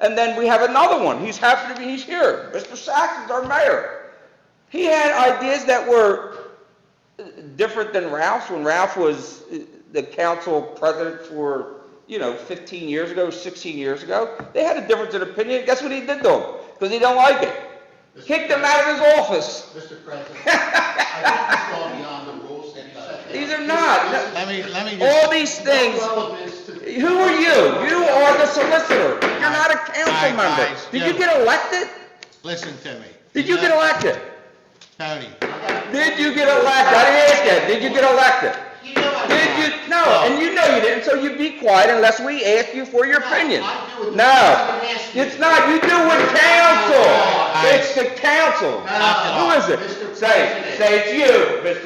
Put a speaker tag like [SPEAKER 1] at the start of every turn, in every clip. [SPEAKER 1] And then we have another one, he's happy to be, he's here, Mr. Saxon's our mayor. He had ideas that were uh, different than Ralph's, when Ralph was uh, the council president for, you know, 15 years ago, 16 years ago. They had a difference in opinion, guess what he did to him? Because he don't like it. Kicked him out of his office.
[SPEAKER 2] Mr. President, I think it's gone beyond the rules that you set.
[SPEAKER 1] These are not.
[SPEAKER 2] This is-
[SPEAKER 3] Let me, let me
[SPEAKER 1] All
[SPEAKER 3] just,
[SPEAKER 1] these things,
[SPEAKER 2] No relevance to the-
[SPEAKER 1] Who are you? You are the solicitor. You're not a council
[SPEAKER 3] Alright,
[SPEAKER 1] member.
[SPEAKER 3] guys,
[SPEAKER 1] Did you
[SPEAKER 3] yeah.
[SPEAKER 1] get elected?
[SPEAKER 3] listen to me.
[SPEAKER 1] Did you get elected?
[SPEAKER 3] Tony,
[SPEAKER 1] Did you get elected? I didn't ask that. Did you get elected?
[SPEAKER 2] You know I'm
[SPEAKER 1] Did
[SPEAKER 2] not.
[SPEAKER 1] you? No, and you know you didn't, so you be quiet unless we ask you for your
[SPEAKER 2] No,
[SPEAKER 1] opinion.
[SPEAKER 2] I do it.
[SPEAKER 1] No,
[SPEAKER 2] I didn't ask you.
[SPEAKER 1] it's not. You do with council.
[SPEAKER 2] I-
[SPEAKER 1] It's the council. Who is
[SPEAKER 2] Mr.
[SPEAKER 1] it? Say, it.
[SPEAKER 2] President.
[SPEAKER 1] say it's you,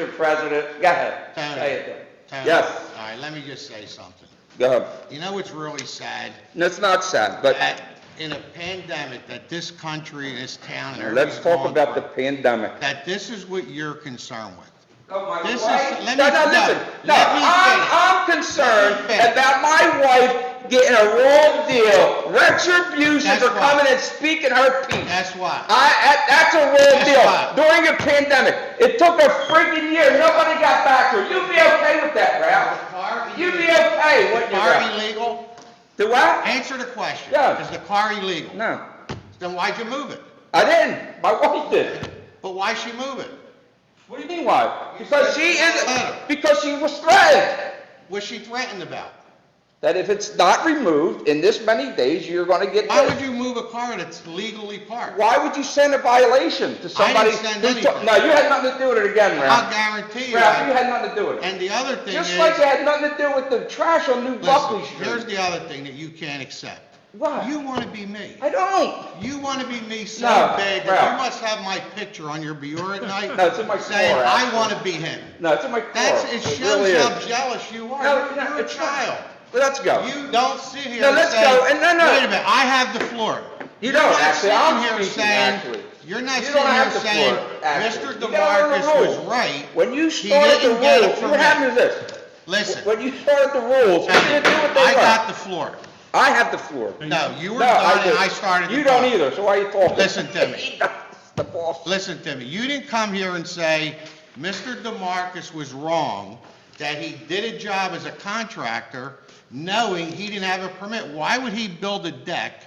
[SPEAKER 1] Mr. President. Go ahead.
[SPEAKER 3] Tony.
[SPEAKER 1] Say it then.
[SPEAKER 3] Tony.
[SPEAKER 1] Yes,
[SPEAKER 3] All right, let me just say something.
[SPEAKER 1] go ahead.
[SPEAKER 3] You know what's really sad?
[SPEAKER 1] No, It's not sad, but
[SPEAKER 3] That in a pandemic, that this country, and this town, and
[SPEAKER 1] let's
[SPEAKER 3] everybody's
[SPEAKER 1] talk
[SPEAKER 3] going
[SPEAKER 1] about the
[SPEAKER 3] through,
[SPEAKER 1] pandemic.
[SPEAKER 3] that this is what you're concerned with.
[SPEAKER 1] This
[SPEAKER 3] This
[SPEAKER 1] is,
[SPEAKER 3] is- let
[SPEAKER 1] no,
[SPEAKER 3] me-
[SPEAKER 1] no,
[SPEAKER 3] no,
[SPEAKER 1] listen, no,
[SPEAKER 3] let me
[SPEAKER 1] I'm,
[SPEAKER 3] finish.
[SPEAKER 1] I'm concerned
[SPEAKER 3] Let me finish.
[SPEAKER 1] about my wife getting a wrong deal, retribution
[SPEAKER 3] That's
[SPEAKER 1] for
[SPEAKER 3] why.
[SPEAKER 1] coming and speaking her piece.
[SPEAKER 3] That's why.
[SPEAKER 1] I, that- that's a wrong
[SPEAKER 3] That's
[SPEAKER 1] deal,
[SPEAKER 3] why.
[SPEAKER 1] during a pandemic, it took a freaking year, nobody got back to her, you'd be okay with that, Ralph?
[SPEAKER 3] Car
[SPEAKER 1] You'd be okay with
[SPEAKER 3] Car
[SPEAKER 1] that.
[SPEAKER 3] illegal?
[SPEAKER 1] Do what?
[SPEAKER 3] Answer the question.
[SPEAKER 1] Yeah.
[SPEAKER 3] Is the car illegal?
[SPEAKER 1] No,
[SPEAKER 3] Then why'd you move it?
[SPEAKER 1] I didn't, my wife did.
[SPEAKER 3] But why'd she move it?
[SPEAKER 1] What do you mean why? Because she is,
[SPEAKER 3] Better.
[SPEAKER 1] because she was threatened.
[SPEAKER 3] Was she threatened about?
[SPEAKER 1] that if it's not removed in this many days, you're gonna get
[SPEAKER 3] Why would
[SPEAKER 1] this.
[SPEAKER 3] you move a car that's legally parked?
[SPEAKER 1] Why would you send a violation to somebody?
[SPEAKER 3] send
[SPEAKER 1] who took-
[SPEAKER 3] anything.
[SPEAKER 1] No, you had nothing to do with it again,
[SPEAKER 3] I'll
[SPEAKER 1] Ralph.
[SPEAKER 3] guarantee you
[SPEAKER 1] Ralph, you
[SPEAKER 3] that.
[SPEAKER 1] had nothing to do with it.
[SPEAKER 3] And the other thing is,
[SPEAKER 1] Just like you had nothing to do with the trash on New Buckley
[SPEAKER 3] listen, here's
[SPEAKER 1] Street.
[SPEAKER 3] the other thing that you can't accept.
[SPEAKER 1] Why?
[SPEAKER 3] You want to be me.
[SPEAKER 1] I don't.
[SPEAKER 3] You want to be me so
[SPEAKER 1] No,
[SPEAKER 3] bad
[SPEAKER 1] Ralph.
[SPEAKER 3] that you must have my picture on your bureau at night.
[SPEAKER 1] No, it's in my
[SPEAKER 3] Saying,
[SPEAKER 1] drawer,
[SPEAKER 3] I
[SPEAKER 1] actually."
[SPEAKER 3] want to be him.
[SPEAKER 1] No, it's in my car.
[SPEAKER 3] That's, it
[SPEAKER 1] really
[SPEAKER 3] shows
[SPEAKER 1] is.
[SPEAKER 3] how jealous you are.
[SPEAKER 1] No,
[SPEAKER 3] You're-
[SPEAKER 1] no,
[SPEAKER 3] You're a
[SPEAKER 1] it's not.
[SPEAKER 3] child.
[SPEAKER 1] Let's go.
[SPEAKER 3] You don't sit here
[SPEAKER 1] No,
[SPEAKER 3] and
[SPEAKER 1] let's
[SPEAKER 3] say,
[SPEAKER 1] go, and no, no.
[SPEAKER 3] Wait a minute, I have the floor.
[SPEAKER 1] You
[SPEAKER 3] You're
[SPEAKER 1] don't,
[SPEAKER 3] not
[SPEAKER 1] actually.
[SPEAKER 3] sitting
[SPEAKER 1] I'm
[SPEAKER 3] here
[SPEAKER 1] speaking,
[SPEAKER 3] saying-
[SPEAKER 1] actually.
[SPEAKER 3] You're not
[SPEAKER 1] You
[SPEAKER 3] sitting
[SPEAKER 1] don't
[SPEAKER 3] here
[SPEAKER 1] have the
[SPEAKER 3] saying,
[SPEAKER 1] floor, actually.
[SPEAKER 3] Mr.
[SPEAKER 1] You gotta learn
[SPEAKER 3] DeMarcus
[SPEAKER 1] the
[SPEAKER 3] was
[SPEAKER 1] rules."
[SPEAKER 3] right.
[SPEAKER 1] When you
[SPEAKER 3] He
[SPEAKER 1] started the
[SPEAKER 3] didn't get it
[SPEAKER 1] rules,
[SPEAKER 3] from
[SPEAKER 1] what
[SPEAKER 3] me."
[SPEAKER 1] happened is this.
[SPEAKER 3] Listen.
[SPEAKER 1] When you started the rules, you didn't do what they
[SPEAKER 3] I got
[SPEAKER 1] were.
[SPEAKER 3] the floor.
[SPEAKER 1] I have the floor.
[SPEAKER 3] No, you were
[SPEAKER 1] No,
[SPEAKER 3] done and
[SPEAKER 1] didn't.
[SPEAKER 3] I started the
[SPEAKER 1] You don't
[SPEAKER 3] clock.
[SPEAKER 1] either, so why are you talking?
[SPEAKER 3] Listen to me.
[SPEAKER 1] He does, the boss.
[SPEAKER 3] Listen to me, you didn't come here and say, Mr. DeMarcus was wrong, that he did a job as a contractor knowing he didn't have a permit. Why would he build a deck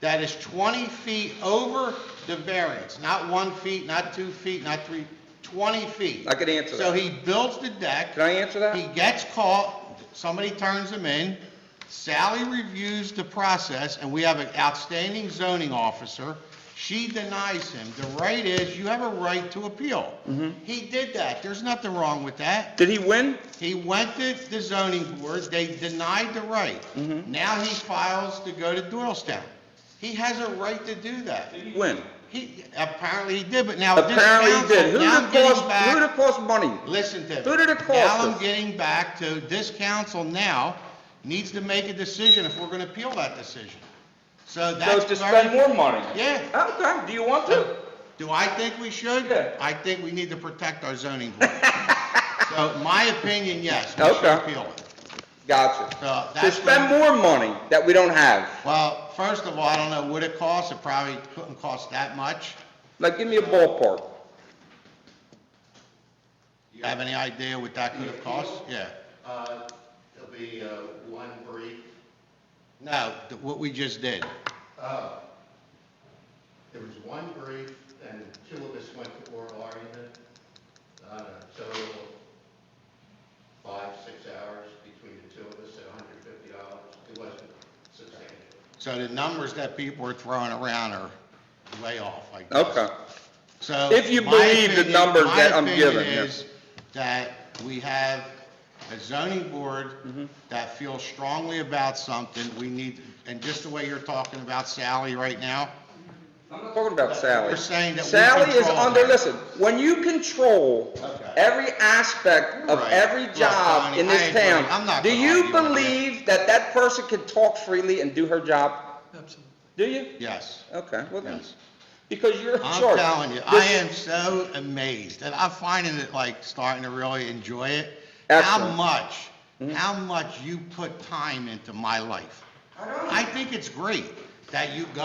[SPEAKER 3] that is 20 feet over the variance? Not one feet, not two feet, not three, 20 feet.
[SPEAKER 1] I can answer
[SPEAKER 3] So
[SPEAKER 1] that.
[SPEAKER 3] he builds the deck.
[SPEAKER 1] Can I answer that?
[SPEAKER 3] He gets caught, somebody turns him in, Sally reviews the process, and we have an outstanding zoning officer. She denies him. The right is, you have a right to appeal.
[SPEAKER 1] Mm-hmm.
[SPEAKER 3] He did that. There's nothing wrong with that.
[SPEAKER 1] Did he win?
[SPEAKER 3] He went to the zoning board, they denied the right.
[SPEAKER 1] Mm-hmm.
[SPEAKER 3] Now he files to go to Doylestown. He has a right to do that.
[SPEAKER 1] Win.
[SPEAKER 3] He, apparently he did, but now this
[SPEAKER 1] Apparently he did. Who
[SPEAKER 3] council,
[SPEAKER 1] did
[SPEAKER 3] now
[SPEAKER 1] it
[SPEAKER 3] I'm getting
[SPEAKER 1] cost,
[SPEAKER 3] back-
[SPEAKER 1] who did it cost money?
[SPEAKER 3] Listen to me.
[SPEAKER 1] Who did it cost
[SPEAKER 3] Now
[SPEAKER 1] us?
[SPEAKER 3] I'm getting back to, this council now needs to make a decision if we're gonna appeal that decision. So
[SPEAKER 1] So
[SPEAKER 3] that's.
[SPEAKER 1] to
[SPEAKER 3] very-
[SPEAKER 1] spend more money?
[SPEAKER 3] Yeah.
[SPEAKER 1] Okay, do you want to?
[SPEAKER 3] Do I think we should?
[SPEAKER 1] Yeah.
[SPEAKER 3] I think we need to protect our zoning board. So my opinion, yes, we
[SPEAKER 1] Okay.
[SPEAKER 3] should appeal it.
[SPEAKER 1] Gotcha.
[SPEAKER 3] So
[SPEAKER 1] To
[SPEAKER 3] that's.
[SPEAKER 1] spend more money that we don't have.
[SPEAKER 3] Well, first of all, I don't know what it costs. It probably couldn't cost that much.
[SPEAKER 1] Like, give me a ballpark.
[SPEAKER 3] You have any idea what that could have cost? Yeah.
[SPEAKER 2] Uh, There'll be uh, one brief.
[SPEAKER 3] No, th- what we just did.
[SPEAKER 2] Oh. There was one brief, and two of us went to oral argument. Uh, Total of five, six hours between the two of us, at $150. It wasn't substantial.
[SPEAKER 3] So the numbers that people are throwing around are way off, I guess.
[SPEAKER 1] Okay.
[SPEAKER 3] So.
[SPEAKER 1] If you
[SPEAKER 3] my
[SPEAKER 1] believe the
[SPEAKER 3] opinion-
[SPEAKER 1] numbers that I'm
[SPEAKER 3] My
[SPEAKER 1] giving, yeah.
[SPEAKER 3] opinion is that we have a zoning
[SPEAKER 1] Mm-hmm.
[SPEAKER 3] board that feels strongly about something, we need, and just the way you're talking about Sally right now,
[SPEAKER 1] I'm not talking about Sally.
[SPEAKER 3] You're saying that we
[SPEAKER 1] Sally is
[SPEAKER 3] control
[SPEAKER 1] under,
[SPEAKER 3] her.
[SPEAKER 1] listen, when you control
[SPEAKER 3] Okay.
[SPEAKER 1] every aspect of
[SPEAKER 3] Right.
[SPEAKER 1] every
[SPEAKER 3] Look,
[SPEAKER 1] job
[SPEAKER 3] Tony,
[SPEAKER 1] in this
[SPEAKER 3] I agree. I'm
[SPEAKER 1] town,
[SPEAKER 3] not
[SPEAKER 1] do
[SPEAKER 3] gonna
[SPEAKER 1] you
[SPEAKER 3] argue with you.
[SPEAKER 1] believe that that person can talk freely and do her job? Absolutely. Do you?
[SPEAKER 3] yes.
[SPEAKER 1] Okay, well then,
[SPEAKER 3] Yes.
[SPEAKER 1] because you're in charge.
[SPEAKER 3] I'm telling you, I
[SPEAKER 1] This-
[SPEAKER 3] am so amazed, and I'm finding it like starting to really enjoy it. How
[SPEAKER 1] Excellent. Mm-hmm.
[SPEAKER 3] much, how much you put time into my life. I think it's great. that you go